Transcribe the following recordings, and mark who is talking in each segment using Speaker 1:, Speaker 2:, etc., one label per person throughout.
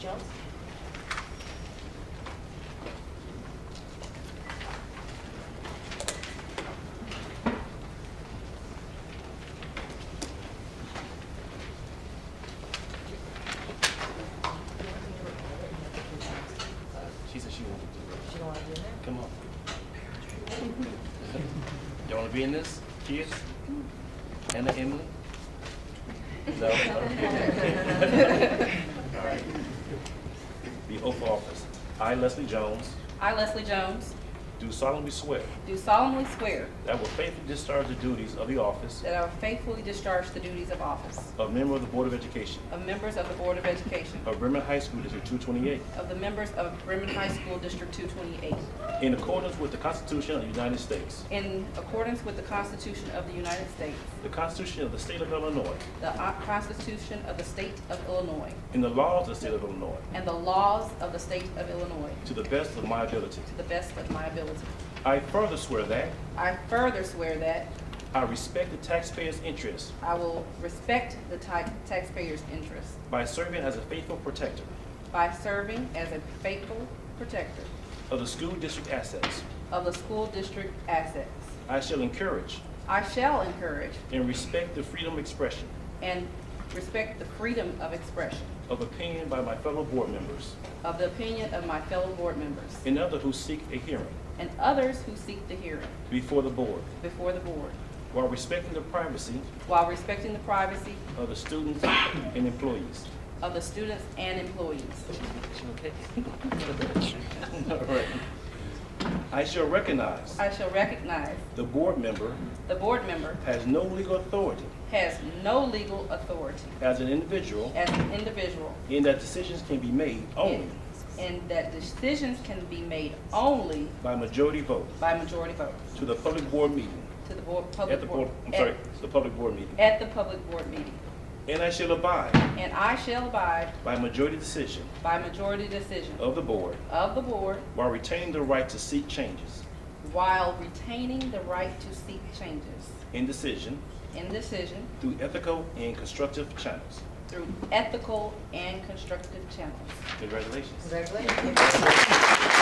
Speaker 1: Jones?
Speaker 2: She said she wanted to.
Speaker 1: She don't want to be in there?
Speaker 2: Come on. Don't want to be in this, kids? Anna, Emily? No? Okay. All right. The oath of office. I, Leslie Jones,
Speaker 3: I, Leslie Jones,
Speaker 2: do solemnly swear
Speaker 3: do solemnly swear
Speaker 2: that I will faithfully discharge the duties of the office
Speaker 3: that I will faithfully discharge the duties of office
Speaker 2: of member of the Board of Education
Speaker 3: of members of the Board of Education
Speaker 2: of Bremen High School District 228
Speaker 3: of the members of Bremen High School District 228
Speaker 2: in accordance with the Constitution of the United States,
Speaker 3: in accordance with the Constitution of the United States,
Speaker 2: the Constitution of the State of Illinois,
Speaker 3: the O- Constitution of the State of Illinois,
Speaker 2: and the laws of the State of Illinois,
Speaker 3: and the laws of the State of Illinois
Speaker 2: to the best of my ability.
Speaker 3: to the best of my ability.
Speaker 2: I further swear that
Speaker 3: I further swear that
Speaker 2: I respect the taxpayers' interests
Speaker 3: I will respect the ti- taxpayers' interests
Speaker 2: by serving as a faithful protector
Speaker 3: by serving as a faithful protector
Speaker 2: of the school district assets.
Speaker 3: of the school district assets.
Speaker 2: I shall encourage
Speaker 3: I shall encourage
Speaker 2: and respect the freedom of expression
Speaker 3: and respect the freedom of expression
Speaker 2: of opinion by my fellow board members
Speaker 3: of the opinion of my fellow board members
Speaker 2: and others who seek a hearing
Speaker 3: and others who seek the hearing
Speaker 2: before the board
Speaker 3: before the board
Speaker 2: while respecting the privacy
Speaker 3: while respecting the privacy
Speaker 2: of the students and employees.
Speaker 3: of the students and employees.
Speaker 2: All right. I shall recognize
Speaker 3: I shall recognize
Speaker 2: the board member
Speaker 3: the board member
Speaker 2: has no legal authority
Speaker 3: has no legal authority
Speaker 2: as an individual
Speaker 3: as an individual
Speaker 2: in that decisions can be made only
Speaker 3: and that decisions can be made only
Speaker 2: by majority vote
Speaker 3: by majority vote
Speaker 2: to the public board meeting
Speaker 3: to the board,
Speaker 2: At
Speaker 3: public
Speaker 2: the
Speaker 3: board.
Speaker 2: board, I'm sorry, it's the public board
Speaker 3: at-
Speaker 2: meeting.
Speaker 3: At the public board meeting.
Speaker 2: And I shall abide
Speaker 3: And I shall abide
Speaker 2: by majority decision
Speaker 3: by majority decision
Speaker 2: of the board
Speaker 3: of the board
Speaker 2: while retaining the right to seek changes
Speaker 3: while retaining the right to seek changes
Speaker 2: in decision
Speaker 3: in decision
Speaker 2: through ethical and constructive channels.
Speaker 3: through ethical and constructive channels.
Speaker 2: Congratulations.
Speaker 1: Congratulations.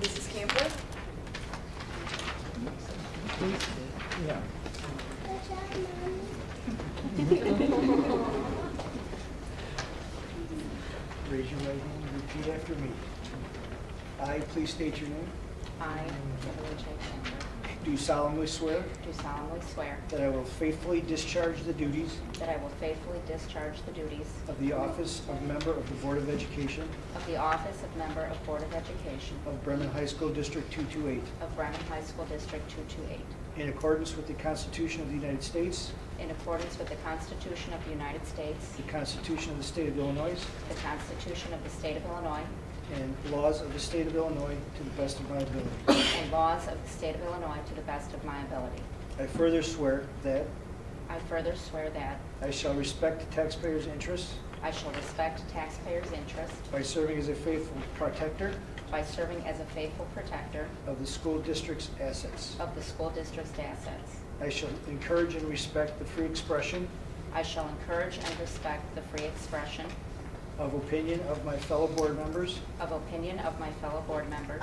Speaker 1: Mrs. Campbell?
Speaker 4: Raise your right hand and repeat after me. I, please state your name.
Speaker 5: I, Kimberly J. Cameron,
Speaker 4: Do solemnly swear
Speaker 5: do solemnly swear
Speaker 4: that I will faithfully discharge the duties
Speaker 5: that I will faithfully discharge the duties
Speaker 4: of the office of member of the Board of Education
Speaker 5: of the office of member of Board of Education
Speaker 4: of Bremen High School District 228
Speaker 5: of Bremen High School District 228
Speaker 4: in accordance with the Constitution of the United States,
Speaker 5: in accordance with the Constitution of the United States,
Speaker 4: the Constitution of the State of Illinois,
Speaker 5: the Constitution of the State of Illinois,
Speaker 4: and laws of the State of Illinois to the best of my ability.
Speaker 5: and laws of the State of Illinois to the best of my ability.
Speaker 4: I further swear that
Speaker 5: I further swear that
Speaker 4: I shall respect the taxpayers' interests
Speaker 5: I shall respect taxpayers' interests
Speaker 4: by serving as a faithful protector
Speaker 5: by serving as a faithful protector
Speaker 4: of the school district's assets.
Speaker 5: of the school district's assets.
Speaker 4: I shall encourage and respect the free expression
Speaker 5: I shall encourage and respect the free expression
Speaker 4: of opinion of my fellow board members
Speaker 5: of opinion of my fellow board members